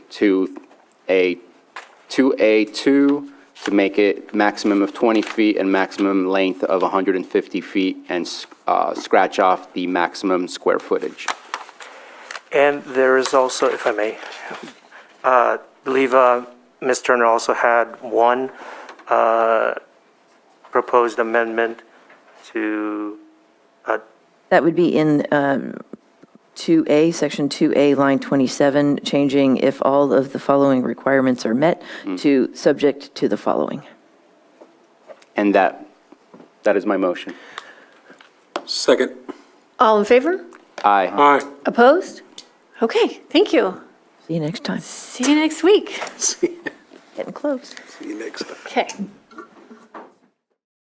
to a, to A2 to make it maximum of 20 feet and maximum length of 150 feet and s- uh, scratch off the maximum square footage. And there is also, if I may, uh, believe uh, Ms. Turner also had one uh, proposed amendment to, uh, That would be in um, 2A, Section 2A, line 27, changing if all of the following requirements are met to subject to the following. And that, that is my motion. Second. All in favor? Aye. Aye. Opposed? Okay, thank you. See you next time. See you next week. See Getting close. you next time. Okay.